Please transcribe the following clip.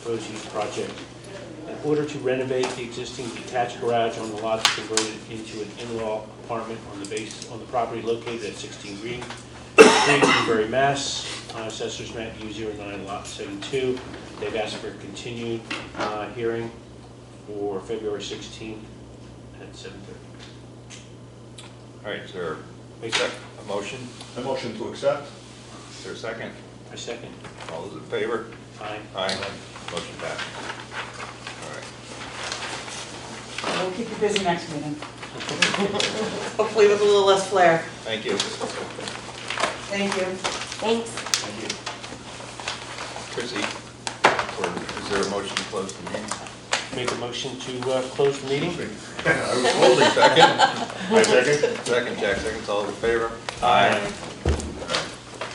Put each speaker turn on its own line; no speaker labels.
proposed use project. In order to renovate the existing detached garage on the lot to convert it into an in-law apartment on the base, on the property located at 16 Green Street, Newbury, Mass, on Assessor's Map U09, Lot 72. They've asked for a continued uh, hearing for February 16th at 7:30.
All right, is there
Wait,
a motion?
A motion to accept?
Is there a second?
I second.
All those in favor?
Aye.
Aye. Motion passed. All right.
We'll keep you busy next meeting.
Hopefully with a little less flair.
Thank you.
Thank you.
Thanks.
Chrissy, or is there a motion to close the meeting?
Make a motion to uh, close the meeting?
I was holding second.
I second.
Second, Jack, second, all in favor?
Aye.